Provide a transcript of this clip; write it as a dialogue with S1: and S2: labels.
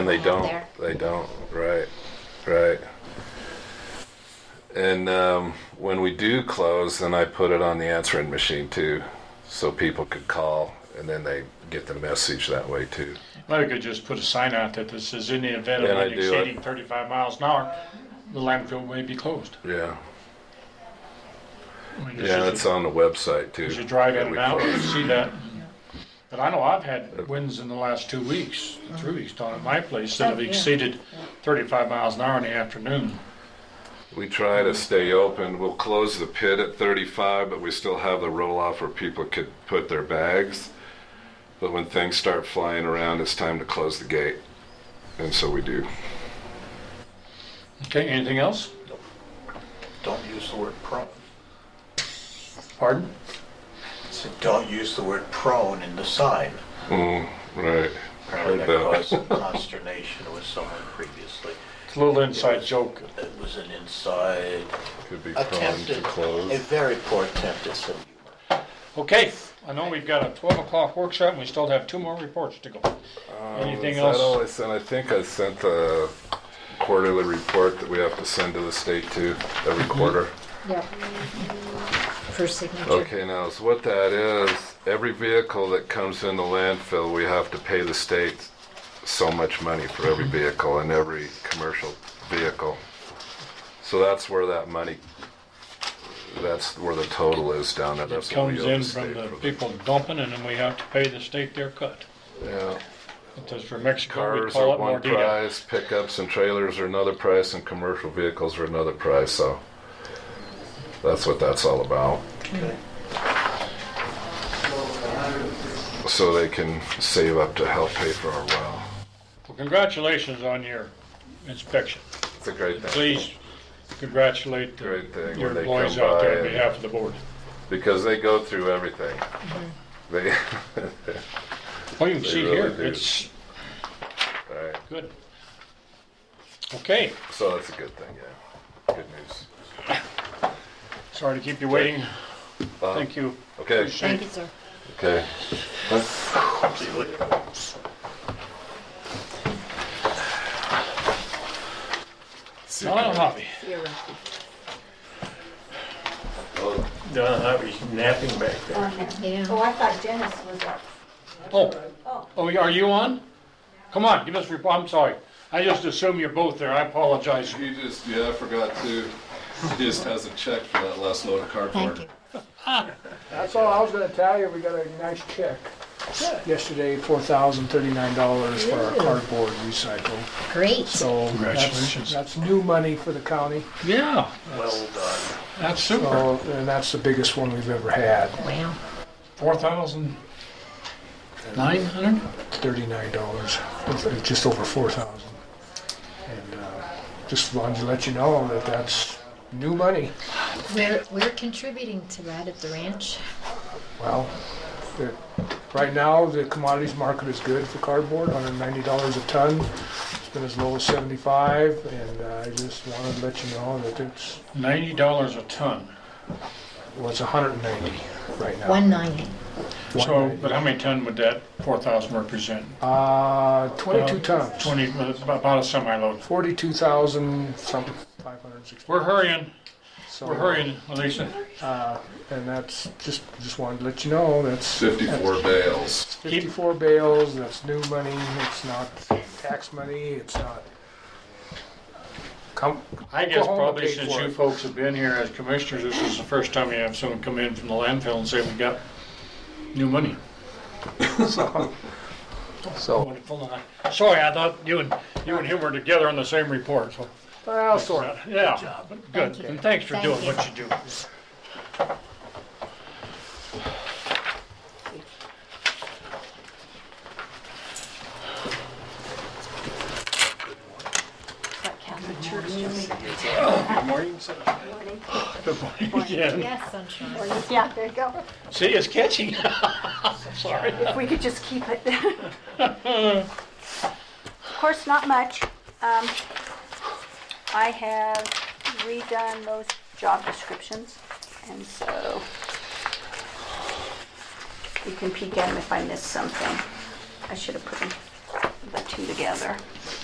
S1: And they don't.
S2: there.
S1: They don't. Right. Right. And um, when we do close, then I put it on the answering machine too, so people could call, and then they get the message that way too.
S3: Well, we could just put a sign out that this is in the event
S1: Yeah,
S3: of
S1: I
S3: wind
S1: do it.
S3: exceeding 35 miles an hour, the landfill may be closed.
S1: Yeah.
S3: I mean, this
S1: Yeah,
S3: is-
S1: it's on the website too.
S3: As you drive
S1: that
S3: in
S1: we
S3: and out, you
S1: close.
S3: see that. But I know I've had winds in the last two weeks, three weeks down at my place that have exceeded 35 miles an hour in the afternoon.
S1: We try to stay open. We'll close the pit at 35, but we still have the roll off where people could put their bags. But when things start flying around, it's time to close the gate. And so we do.
S3: Okay, anything else?
S4: Don't use the word prone.
S3: Pardon?
S4: So don't use the word prone in the sign.
S1: Mm, right.
S4: Apparently
S1: Heard
S4: that
S1: that.
S4: caused some consternation with someone previously.
S3: It's a little inside joke.
S4: It was an inside
S1: Could be prone to
S4: attempted, a
S1: close.
S4: very poor attempt at some humor.
S3: Okay, I know we've got a 12 o'clock workshop and we still have two more reports to go. Anything
S1: Uh, Is that all
S3: else?
S1: I sent? I think I sent the quarterly report that we have to send to the state too,
S3: Mm-hmm.
S1: every quarter.
S2: Yep. For signature.
S1: Okay, now, so what that is, every vehicle that comes in the landfill, we have to pay the state so much money for every
S3: Mm-hmm.
S1: vehicle and every commercial vehicle. So that's where that money, that's where the total is down there.
S3: It
S1: That's what we
S3: comes
S1: owe the
S3: in
S1: state
S3: from the
S1: for the-
S3: people dumping and then we have to pay the state their cut.
S1: Yeah.
S3: Because for Mexico, we
S1: Cars
S3: call
S1: are
S3: it
S1: one
S3: mordida.
S1: price, pickups and trailers are another price, and commercial vehicles are another price, so that's what that's all about. So they can save up to help pay for our well.
S3: Well, Congratulations on your inspection.
S1: It's a great thing,
S3: please congratulate the-
S1: Great thing when
S3: your
S1: they
S3: employees
S1: come
S3: out
S1: by
S3: there on
S1: and-
S3: behalf of the board.
S1: because they go through everything.
S2: Mm-hmm.
S1: They,
S3: Well, you can see
S1: really
S3: here,
S1: do.
S3: it's
S1: all right,
S3: good. Okay,
S1: so that's a good thing, yeah, good news.
S3: sorry to keep you waiting.
S1: Uh,
S3: Thank you.
S1: Okay,
S3: Appreciate
S2: Thank you,
S3: it.
S2: sir.
S1: okay.
S3: Not a hobby.
S2: You're welcome.
S1: Oh,
S5: Don Hobby's napping back there.
S2: Yeah.
S6: Oh, I thought Dennis was up.
S3: Oh, oh, are you on? Come on, give us a report, I'm sorry. I just assume you're both there, I apologize.
S1: He just, yeah, I forgot to, he just hasn't checked for that last load of cardboard.
S2: Thank you.
S7: That's all I was gonna tell you, we got a nice check yesterday, four thousand thirty-nine dollars for our cardboard recycle,
S2: Great.
S7: so. that's-
S3: Congratulations.
S7: That's new money for the county,
S3: Yeah,
S4: Well done.
S3: that's super.
S7: so, and that's the biggest one we've ever had,
S2: Wow.
S3: Four thousand nine hundred?
S7: thirty-nine dollars, just over four thousand. And, uh, just wanted to let you know that that's new money,
S2: We're, we're contributing to that at the ranch.
S7: well, the- right now, the commodities market is good for cardboard, hundred and ninety dollars a ton. It's been as low as seventy-five, and uh, I just wanted to let you know that it's
S3: Ninety dollars a ton.
S7: Well, it's 190 right now.
S2: 190.
S3: So, but how many ton would that four thousand represent?
S7: Uh, 22 tons.
S3: Twenty, uh, about a semi-load.
S7: 42,000 something, 560.
S3: We're hurrying.
S7: So,
S3: We're hurrying, Lisa.
S7: Uh, and that's just just wanted to let you know that's
S1: Fifty-four bales.
S7: that's 54 bales. That's new money. It's not tax money. It's not. Come,
S3: I guess
S7: Oklahoma
S3: probably
S7: paid
S3: since
S7: for
S3: you
S7: it.
S3: folks have been here as commissioners, this is the first time you have someone come in from the landfill and say, we got new money.
S7: So
S3: Wonderful. Sorry, I thought you and, you and him were together on the same report, so.
S7: well, sort of.
S3: Yeah, good.
S2: you.
S3: And thanks for
S2: Thank
S3: doing
S2: you.
S3: what you do. Good morning. Yeah.
S2: Yes, sunshine.
S6: Yeah, there you go.
S3: See, it's catchy. Sorry.
S6: If we could just keep it. Of course, not much. Um, I have redone those job descriptions, and so you can peek at them if I missed something. I should have put 'em- the two together.